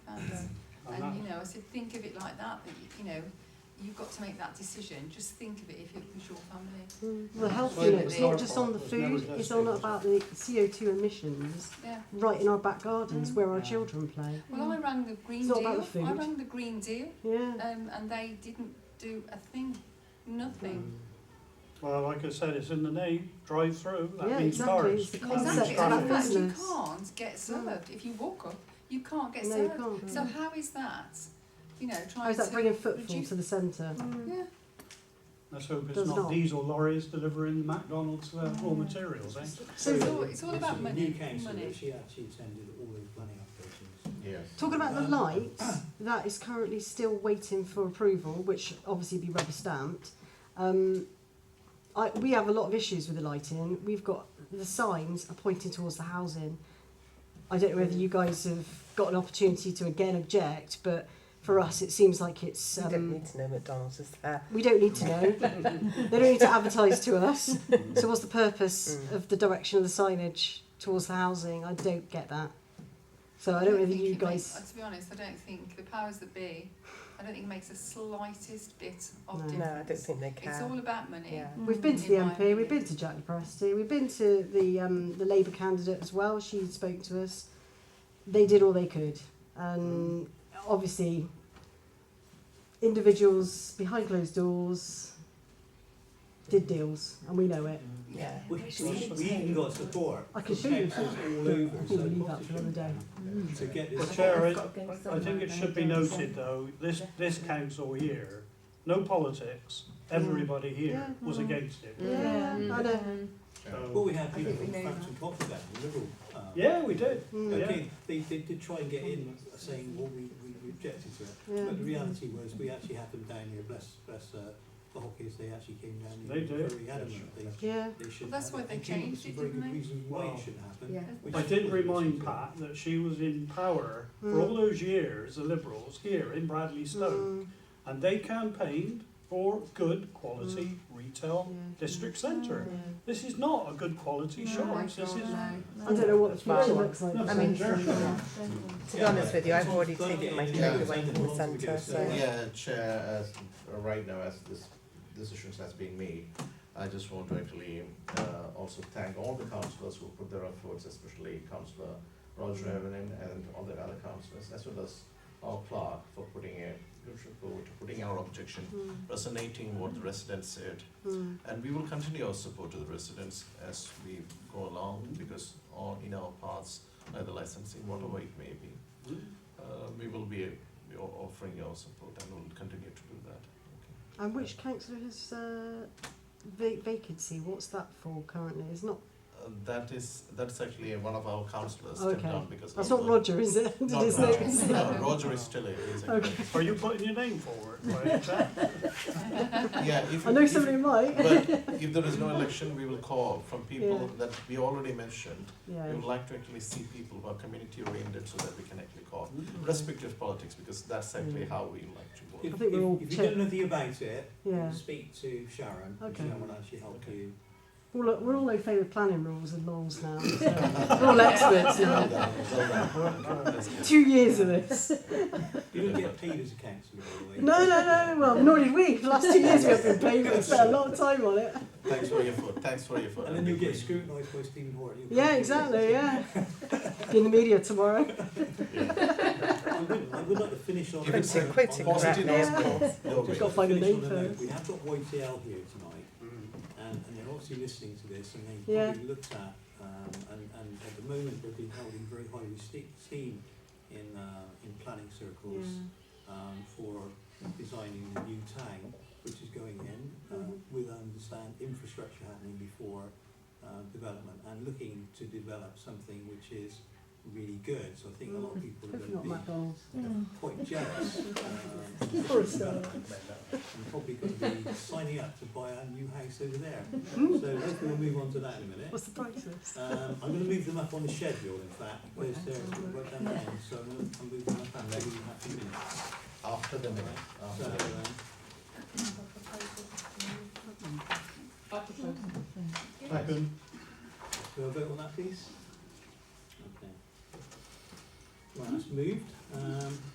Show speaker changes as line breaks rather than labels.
um, know, I said, think of it like that, that, you- you know, you've got to make that decision, just think of it if it was your family.
The health
Well,
unit,
it's
it's
our
not just
fault.
on the
There's no
food, it's on
investigation.
about the CO2 emissions
Yeah,
right in our back gardens
Mm.
where our
Yeah.
children play.
well, I rang the Green
It's not about
Deal,
the food.
I rang the Green Deal,
Yeah.
um, and they didn't do a thing,
Mm.
nothing.
Um, Well, like I said, it's in the name, drive through,
Yeah,
that means
exactly,
forest.
it's the
that means
concept
Exactly,
it's
and
about
in
traffic.
fact, you
business.
can't get served, if you walk up, you can't get
no, you
served.
can't.
So how is that, you know,
How
trying
is
to
that bringing footfall
reduce-
to the centre?
Yeah,
Let's hope it's
Does
not
not.
diesel lorries delivering McDonald's uh, raw materials, eh?
it's,
So-
it's all, it's all about
the
money,
New council,
money.
she actually attended all the planning applications.
Yes.
Talking about the
Um,
lights, that is currently still waiting for approval, which should obviously be rubber stamped. Um, I, we have a lot of issues with the lighting. We've got the signs are pointing towards the housing. I don't know whether
Mm.
you guys have got an opportunity to again object, but for us it seems like it's
you don't
um,
need to know McDonald's is there.
we don't need to know. they don't need to advertise to us. So what's the purpose
Mm.
of the direction of the signage towards the housing? I don't get that. So I don't know whether
think
you
it makes-
guys.
uh, to be honest, I don't think the powers that be. I don't think it makes the slightest bit of
No. No, I
difference.
No, I don't think they care.
It's all about money.
yeah.
We've been to the
in my
MP, we've
opinion.
been to Jack Lepresti, we've been to the um, the Labour candidate as well. She spoke to us. They did all they could, and obviously, individuals behind closed doors did deals, and we know it.
Yeah.
We, we, we even got support.
I can
from
show you.
councils all
I
over,
think
so
we'll leave
what
that
to
for another
do
day.
Mm.
To get
Well,
this.
Chair, I, I think it should be noted though, this, this council here, no politics, everybody here
Yeah.
was against it.
Yeah, I know.
Well,
So,
we had
think
people
we
from
know
Frampton
that.
Copper that, the Liberal. um,
yeah, we did.
Mm,
Yeah.
Okay, they, they did try and get in saying, well, we, we we objected to it.
yeah.
But the reality was, we actually had them down here, bless, bless, uh, the hockeys, they actually came down here.
They did.
Very adamant, they,
Yeah,
they should.
Well, that's
have
why they
and came up
changed
with some
it,
very
didn't
good
they?
reasons Why
Wow.
it should happen.
Yeah.
which
I did
wasn't
remind
so
Pat that she was in power for
Mm.
all those years, the Liberals here in Bradley Stoke,
mm,
and they campaigned for good
Mm.
quality retail
yeah.
district centre.
Yeah.
This is not a good quality
No,
shop.
I
This is
don't know.
I don't know what the future looks like.
No,
I mean,
sure.
To be honest with you, I've already
Yeah.
taken my
Yeah.
food away from the centre, so.
Yeah, Chair, as, uh, right now, as this decision has been made, I just want to actually uh, also thank all the councillors who put their efforts, especially councillor Roger Evelyn and all the other councillors, as well as our clerk for putting a good report, putting our objection,
Mm,
resonating what the residents said.
mm,
And we will continue our support to the residents as we go along,
Mm-hmm.
because all in our paths, either licensing, whatever it may be.
Mm-hmm.
Uh, we will be, we are offering your support and will continue to do that.
And which councillor has uh, va- vacancy? What's that for currently? It's not.
Uh, that is, that's actually one of our councillors
Okay.
stepped down because.
That's
of
not
the-
Roger, is it? Did
Not
his
Roger.
name-
No, Roger is still a, is a.
Okay.
Are you putting your name forward? by any chance?
Yeah, if.
I know
if-
somebody might.
But if there is no election, we will call from
Yeah.
people that we already mentioned. We
Yeah.
would like to actually see people who are community oriented so that we can actually call, respective politics, because that's actually
Mm.
how we like to work.
If,
I
if,
think we're all
if you don't
check-
know anything about it,
Yeah.
speak to Sharon, because
Okay.
that will actually help
Okay.
you.
All, we're all in favour of planning rules and laws now. So we're all experts now.
Well done, well done. That's good.
Two years of this.
You don't get paid as a councillor, by the way.
No, no, no. Well, nor did we. The last two years we have been paying, we spent a lot of time on it.
Thanks for your food. Thanks for your food.
And then you'll get scrutinised by Stephen Hort. you'll-
Yeah, exactly. Yeah. Be in the media tomorrow.
Yeah.
I would, I would like to finish on.
If it's
on-
a
quitting
on-
Positive
Yeah.
outcome, no
Just
way.
Got to find a
finish
name
on a note,
first.
We have got YTL here tonight,
Mm.
and, and they're obviously listening to this, and they've
Yeah.
probably looked at, um, and, and at the moment, they've been held in very high esteem- esteem in, uh, in planning circles, um, for designing the new town, which is going in, uh,
Mhm.
with, I understand, infrastructure happening before, uh, development, and looking to develop something which is really good, so I think a lot of people are
Hopefully
gonna
Mm-hmm. not
be
McDonald's.
quite jealous. um,
For a start.
I'm probably going to be signing up to buy a new house over there. So hopefully we'll move on to that in a minute.
Mm-hmm. What's the price list?
Um, I'm going to move them up on the schedule, in fact, because they're right down the end, so I'm going to move them up and maybe we have two minutes.
After the minute.
So,
After the minute.
um,
Thanks.
do I vote on that, please? Okay. Right, that's moved. Um,